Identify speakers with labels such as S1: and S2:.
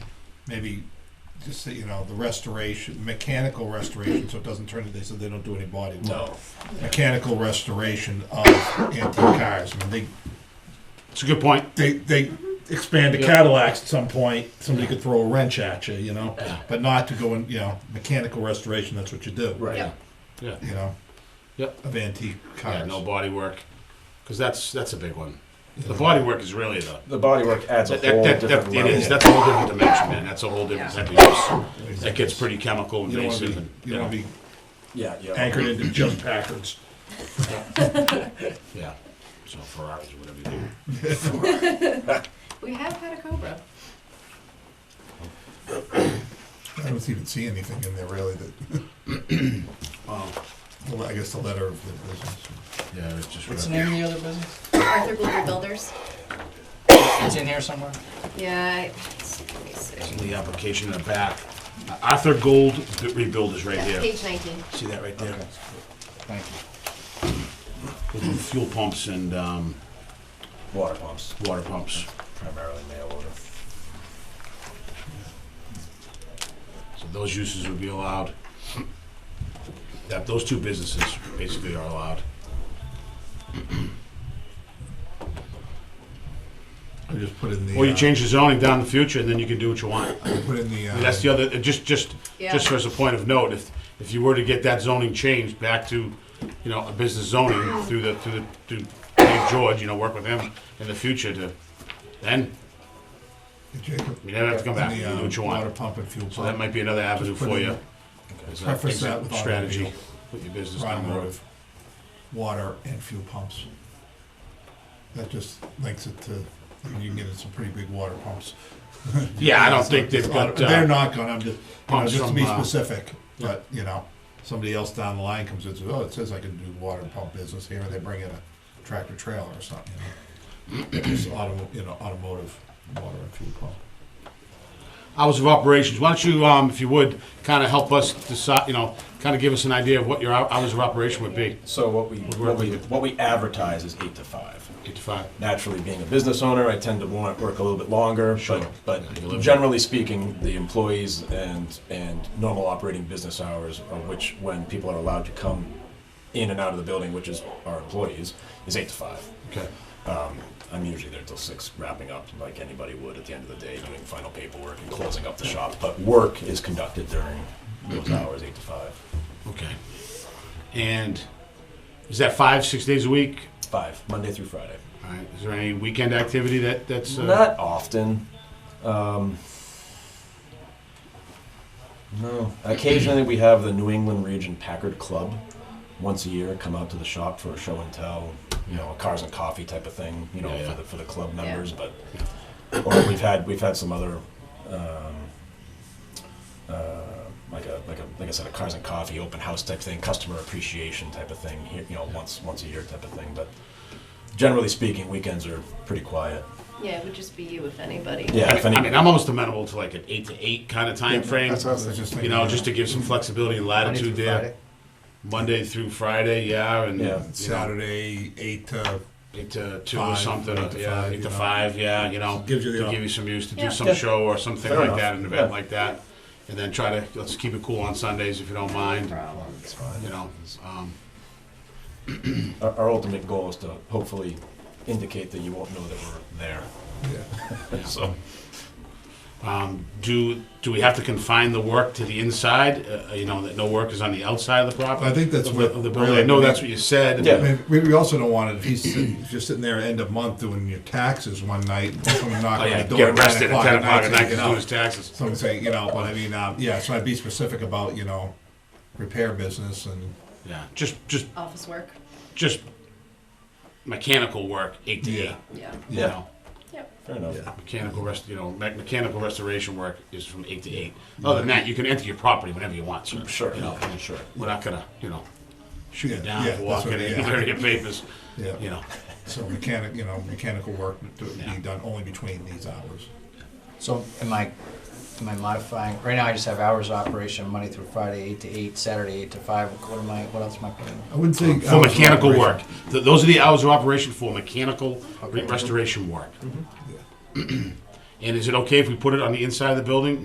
S1: maybe just say, you know, the restoration, mechanical restoration, so it doesn't turn into, they said they don't do any body work.
S2: No.
S1: Mechanical restoration of antique cars. I mean,
S3: It's a good point.
S1: they, they, they expand the
S2: Yeah.
S1: Cadillacs at some point, somebody could throw a wrench at you, you know?
S2: Yeah.
S1: But not to go in, you know, mechanical restoration, that's what you do.
S2: Right.
S4: Yeah.
S3: Yeah.
S1: You know?
S3: Yep.
S1: Of antique
S3: Yeah,
S1: cars.
S3: no body work, because that's that's a big one. The body work is really the
S2: The bodywork adds a
S3: that,
S2: whole
S3: that, that,
S2: different
S3: that, it
S2: level.
S3: is that's a whole different dimension, man. That's a whole different type of use. That gets pretty chemical
S1: You don't wanna
S3: invasive.
S1: be,
S3: And,
S1: you don't wanna be
S2: Yeah, yeah.
S1: anchored into just Packards.
S3: yeah. So Ferraris, whatever you do.
S4: We have had a Cobra.
S1: I don't even see anything in there really that,
S3: Oh,
S1: well, I guess the letter of the business.
S3: yeah. It's just
S5: What's the name of the other business?
S4: Arthur Global Builders.
S5: It's in here somewhere.
S4: Yeah. I- let me see.
S3: the application in the back. Arthur Gold Rebuild is right
S4: Yeah,
S3: here.
S4: Page nineteen.
S3: See that right there?
S5: Thank you.
S3: Those are Fuel pumps and um,
S2: Water pumps,
S3: water pumps.
S2: primarily mail order.
S3: So those uses would be allowed. That, those two businesses basically are allowed.
S1: I just put in the.
S3: Or you
S1: uh,
S3: change the zoning down in the future and then you can do what you want. I
S1: Put in the. uh,
S3: mean, that's the other, just, just,
S4: Yeah.
S3: just as a point of note, if, if you were to get that zoning changed back to, you know, a business zoning through the, through the, through Dave George, you know, work with him in the future to, then
S1: Jacob.
S3: you never have to come back, you can do what you
S1: uh, Water
S3: want.
S1: pump and fuel pump.
S3: So that might be another avenue
S1: put
S3: for
S1: in-
S3: you. as a
S1: Preface that with
S3: exit Strategy,
S1: automobile.
S3: with your business down the road.
S1: Automotive, water and fuel pumps. That just links it to, I mean, you can get in some pretty big water pumps.
S3: Yeah, I don't think they've got,
S1: They're
S3: uh,
S1: not gonna, I'm just, you know,
S3: pumps
S1: just to be
S3: from, uh,
S1: specific, but, you know, somebody else down the line comes in and says, oh, it says I can do water pump business here, and they bring in a tractor trailer or something, you know. It's auto, you know, automotive, water and fuel pump.
S3: hours of operations. Why don't you, um, if you would, kind of help us decide, you know, kind of give us an idea of what your hou- hours of operation would be,
S2: So what we,
S3: work
S2: what we,
S3: with it.
S2: what we advertise is eight to five.
S3: eight to five.
S2: Naturally, being a business owner, I tend to want, work a little bit longer,
S3: Sure.
S2: but, but
S3: You live-
S2: generally speaking, the employees and, and normal operating business hours, of which, when people are allowed to come in and out of the building, which is our employees, is eight to five.
S3: Okay.
S2: Um, I'm usually there till six, wrapping up like anybody would at the end of the day, doing final paperwork and closing up the shop. But work is conducted during those hours, eight to five.
S3: Okay. And is that five, six days a week?
S2: Five, Monday through Friday.
S3: All right. Is there any weekend activity that that's uh,
S2: Not often. Um, no. Occasionally, we have the New England Region Packard Club once a year come out to the shop for a show and tell, you know, a cars and coffee type of thing, you know,
S3: Yeah, yeah.
S2: for the for the club members. But or we've had we've had some other. Um, uh, like a like a like I said, a cars and coffee open house type thing, customer appreciation type of thing. Here, you know, once once a year type of thing. But generally speaking, weekends are pretty quiet.
S4: Yeah, it would just be you if anybody.
S2: Yeah, if any,
S3: I mean, I'm almost amenable to like an eight to eight kind of time frame.
S1: That's what I was just
S3: You
S1: thinking.
S3: know, just to give some flexibility and
S5: Monday
S3: latitude
S5: through
S3: there.
S5: Friday.
S3: Monday through Friday, yeah, and
S2: Yeah.
S3: you know,
S1: Saturday, eight to
S3: eight to two or
S1: Five,
S3: something.
S1: eight to
S3: yeah,
S1: five,
S3: eight
S1: you
S3: to
S1: know.
S3: five. Yeah, you know,
S1: Gives you the
S3: to
S1: op-
S3: give you some use to do
S4: Yeah.
S3: some
S2: Yeah.
S3: show or something
S2: Fair
S3: like
S2: enough.
S3: that, an event
S2: Yeah.
S3: like that, and then try to let's keep it cool on Sundays if you don't
S4: No
S3: mind.
S4: problem.
S3: You know, um,
S2: our, our ultimate goal is to hopefully indicate that you won't know that we're there. So,
S3: um, do do we have to confine the work to the inside? Uh, you know, that no work is on the outside of the property.
S1: I think that's
S3: of
S1: what
S3: the, of the building. I
S1: really-
S3: know that's what you said. and-
S2: Yeah.
S1: I mean, we, we also don't want it if he's sitting, if you're sitting there end of month doing your taxes one night, and someone
S3: Oh,
S1: knocking
S3: yeah,
S1: on the door.
S3: get arrested at ten o'clock at
S1: saying,
S3: night
S1: you
S3: to
S1: know,
S3: do his taxes.
S1: Someone saying, you know, but I mean, um, yeah, so I'd be specific about, you know, repair business and,
S3: Yeah, just just
S4: Office work.
S3: just mechanical work eight to
S1: Yeah.
S3: eight.
S4: Yeah.
S3: You
S2: Yeah.
S3: know.
S4: Yep.
S2: fair enough.
S1: Yeah.
S3: Mechanical rest, you know, me- mechanical restoration work is from eight to eight. Other than that, you can enter your property whenever you want, sir.
S2: Sure,
S3: You know,
S2: sure.
S3: we're not gonna, you know, shoot you
S1: Yeah,
S3: down
S1: yeah,
S3: for walking
S1: that's what-
S3: in,
S1: yeah.
S3: clearing your papers,
S1: yeah.
S3: you know.
S1: So mechanic, you know, mechanical work to
S3: Yeah.
S1: be done only between these hours.
S5: So am I, am I modifying, right now I just have hours of operation, Monday through Friday, eight to eight, Saturday, eight to five, what am I, what else am I putting?
S1: I wouldn't say. uh,
S3: For mechanical work. Th- Those are the hours of operation for mechanical re-
S5: Okay.
S1: Mm-hmm.
S3: restoration work. And is it okay if we put it on the inside of the building?